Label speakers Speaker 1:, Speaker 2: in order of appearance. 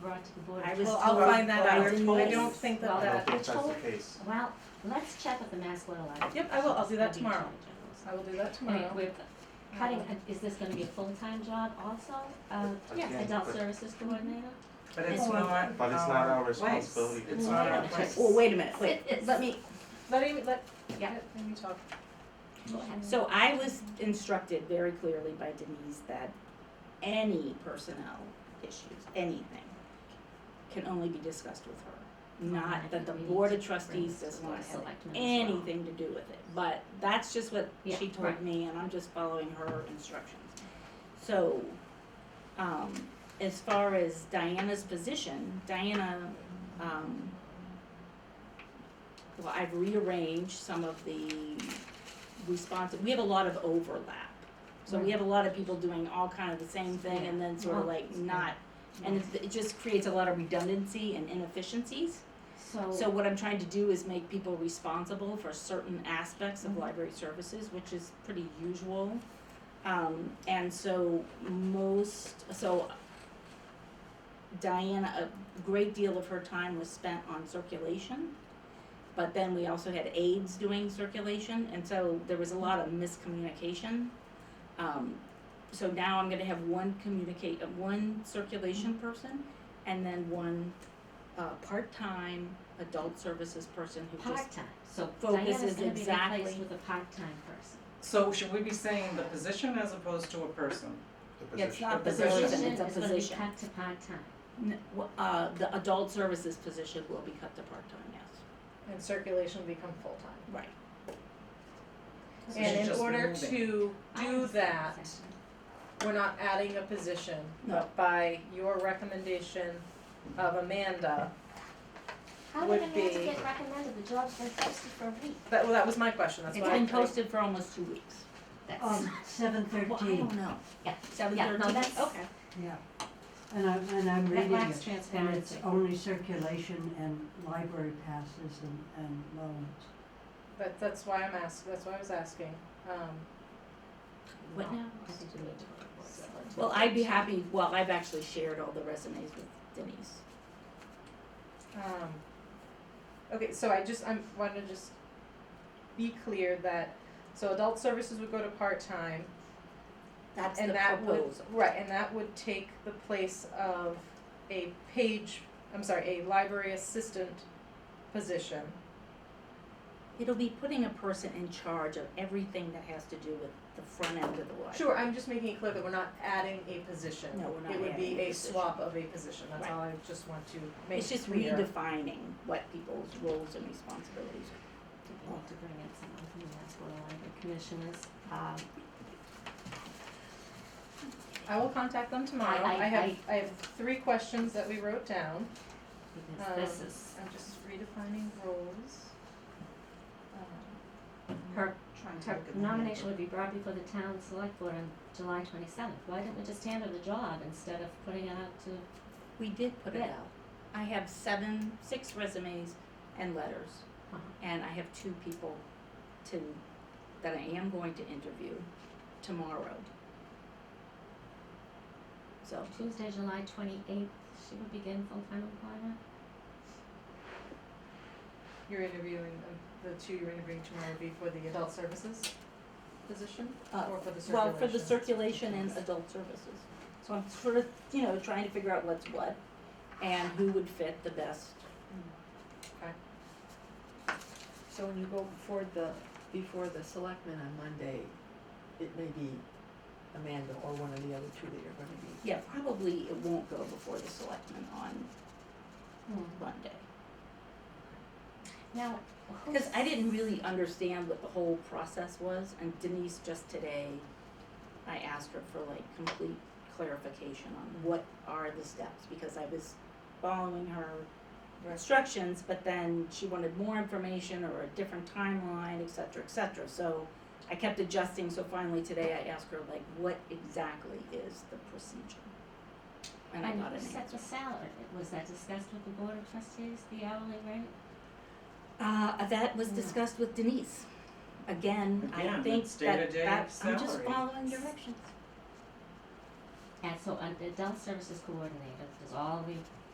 Speaker 1: back to the board.
Speaker 2: I
Speaker 1: of
Speaker 2: was
Speaker 1: Health.
Speaker 2: I'll
Speaker 3: told-
Speaker 2: find that
Speaker 3: or
Speaker 2: out.
Speaker 1: Denise-
Speaker 2: I don't think
Speaker 1: well,
Speaker 2: that
Speaker 3: I
Speaker 2: that,
Speaker 3: don't think
Speaker 1: I
Speaker 3: that's the
Speaker 1: told-
Speaker 3: case.
Speaker 1: Well, let's check with the Mass Water Library.
Speaker 2: Yep, I will. I'll do that
Speaker 1: That'd be
Speaker 2: tomorrow.
Speaker 1: generous.
Speaker 2: I will do that
Speaker 1: Anyway,
Speaker 2: tomorrow.
Speaker 1: we're cutting, is this gonna be a full-time job also? Uh,
Speaker 3: Yes.
Speaker 1: adult
Speaker 3: But-
Speaker 1: services coordinator?
Speaker 4: But it's
Speaker 2: Or-
Speaker 4: not.
Speaker 3: But it's not our
Speaker 4: place.
Speaker 3: responsibility.
Speaker 4: It's not our
Speaker 1: Wait a
Speaker 4: place.
Speaker 5: Well, oh, wait a minute, wait,
Speaker 1: It's-
Speaker 5: let me,
Speaker 2: Let Amy, let,
Speaker 1: Yeah.
Speaker 2: let Amy talk.
Speaker 5: so I was instructed very clearly by Denise that any personnel issues, anything, can only be discussed with her.
Speaker 1: I
Speaker 5: Not that
Speaker 1: think
Speaker 5: the
Speaker 1: we need
Speaker 5: board
Speaker 1: to
Speaker 5: of trustees
Speaker 1: this
Speaker 5: does
Speaker 1: to the
Speaker 5: not have
Speaker 1: selectmen as well.
Speaker 5: anything to do with it, but that's just what
Speaker 1: Yeah,
Speaker 5: she told
Speaker 1: right.
Speaker 5: me, and I'm just following her instructions. So, um, as far as Diana's position, Diana, um, well, I've rearranged some of the response, we have a lot of overlap. So we have a lot of people doing all kind of the same thing and then sort of
Speaker 1: Well,
Speaker 5: like not, and it's- it just creates a lot of redundancy and inefficiencies. So
Speaker 1: So,
Speaker 5: what I'm trying to do is make people responsible for certain aspects of library services, which is pretty usual. Um, and so most, so Diana, a great deal of her time was spent on circulation. But then we also had aides doing circulation, and so there was a lot of miscommunication. Um, so now I'm gonna have one communicate, uh, one circulation person, and then one, uh, part-time adult services person who just
Speaker 1: part-time, so
Speaker 5: Focus
Speaker 1: Diana's
Speaker 5: is
Speaker 1: gonna be
Speaker 5: exactly-
Speaker 1: replaced with a part-time person.
Speaker 4: So should we be saying the position as opposed to a person?
Speaker 3: The
Speaker 5: Yeah, it's
Speaker 3: position.
Speaker 5: not the
Speaker 4: The position
Speaker 5: person, it's a
Speaker 1: is gonna be
Speaker 5: position.
Speaker 1: cut to part-time.
Speaker 5: N- w- Uh, the adult services position will be cut to part-time, yes.
Speaker 2: And circulation become full time.
Speaker 5: Right.
Speaker 2: And
Speaker 4: So she's
Speaker 2: in
Speaker 4: just
Speaker 2: order
Speaker 4: moving.
Speaker 2: to
Speaker 1: I
Speaker 2: do
Speaker 1: understand
Speaker 2: that,
Speaker 1: exactly.
Speaker 2: we're not adding a position,
Speaker 5: No.
Speaker 2: but by your recommendation of Amanda.
Speaker 1: How
Speaker 2: would
Speaker 1: did Amanda
Speaker 2: be-
Speaker 1: get recommended, the job's been posted for a week?
Speaker 2: That, well, that was my question, that's
Speaker 5: It's
Speaker 2: why I,
Speaker 5: been posted for almost two weeks.
Speaker 1: That's,
Speaker 6: Um, seven
Speaker 5: Well, I
Speaker 6: thirteen,
Speaker 5: don't know.
Speaker 1: Yeah.
Speaker 5: Seven
Speaker 1: Yeah, no,
Speaker 5: thirteen?
Speaker 1: that's-
Speaker 5: Okay.
Speaker 6: yeah. And I'm, and I'm
Speaker 1: That
Speaker 6: reading
Speaker 1: lacks
Speaker 6: it, and it's
Speaker 1: transparency.
Speaker 6: only circulation and library passes and, and loans.
Speaker 2: but that's why I'm ask, that's why I was asking, um.
Speaker 5: What now?
Speaker 1: I think we need to.
Speaker 5: Well, I'd be happy, well, I've actually shared all the resumes with Denise.
Speaker 2: Um, okay, so I just, I'm, want to just be clear that, so adult services would go to part-time,
Speaker 5: That's the
Speaker 2: and that would,
Speaker 5: proposal.
Speaker 2: right, and that would take the place of a page, I'm sorry, a library assistant position.
Speaker 5: It'll be putting a person in charge of everything that has to do with the front end of the library.
Speaker 2: Sure, I'm just making it clear that we're not adding a position.
Speaker 5: No, we're not
Speaker 2: It would
Speaker 5: adding
Speaker 2: be
Speaker 5: a
Speaker 2: a
Speaker 5: position.
Speaker 2: swap of a position, that's
Speaker 5: Right.
Speaker 2: all I just want to make
Speaker 5: It's
Speaker 2: clear.
Speaker 5: just redefining what people's roles and responsibilities are.
Speaker 1: We'll have to bring in someone from the Mass Water Library Commissioners. Um,
Speaker 2: I will contact them tomorrow,
Speaker 1: I-
Speaker 2: I have,
Speaker 1: I-
Speaker 2: I have three questions that we wrote down.
Speaker 1: because this
Speaker 2: Um,
Speaker 1: is
Speaker 2: I'm just redefining roles. Um,
Speaker 1: her
Speaker 4: Trying to
Speaker 1: her
Speaker 4: look at the
Speaker 1: nomination
Speaker 4: handbook.
Speaker 1: would be brought before the town select board on July twenty seventh. Why didn't we just hand her the job instead of putting it out to,
Speaker 5: We did put it
Speaker 1: Yeah.
Speaker 5: out. I have seven, six resumes and letters.
Speaker 1: Uh-huh.
Speaker 5: And I have two people to, that I am going to interview tomorrow. So,
Speaker 1: Tuesday, July twenty eighth, she would begin full time employment?
Speaker 2: You're interviewing, um, the two you're interviewing tomorrow would be for the adult services position
Speaker 5: uh,
Speaker 2: or for the circulation?
Speaker 5: well, for the circulation and adult services. So I'm sort of, you know, trying to figure out what's what and who would fit the best.
Speaker 7: So when you go before the, before the selectmen on Monday, it may be Amanda or one of the other two that you're gonna be.
Speaker 5: Yeah, probably it won't go before the selectmen on Monday.
Speaker 1: Now, who's?
Speaker 5: Because I didn't really understand what the whole process was, and Denise just today, I asked her for like complete clarification
Speaker 1: Mm-hmm.
Speaker 5: on what are the steps, because I was following her instructions, but then she wanted more information or a different timeline, et cetera, et cetera, so I kept adjusting, so finally today I asked her like, what exactly is the procedure? And I
Speaker 1: And
Speaker 5: got an
Speaker 1: who set
Speaker 5: answer.
Speaker 1: the salary? Was that discussed with the board of trustees, the hourly rate?
Speaker 5: Uh, that was
Speaker 1: Yeah.
Speaker 5: discussed with Denise. Again, I
Speaker 4: Again,
Speaker 5: think
Speaker 4: it's
Speaker 5: that,
Speaker 4: day-to-day
Speaker 5: that, I'm just
Speaker 4: salary.
Speaker 5: following directions.
Speaker 1: uh, And so an adult services coordinator does all the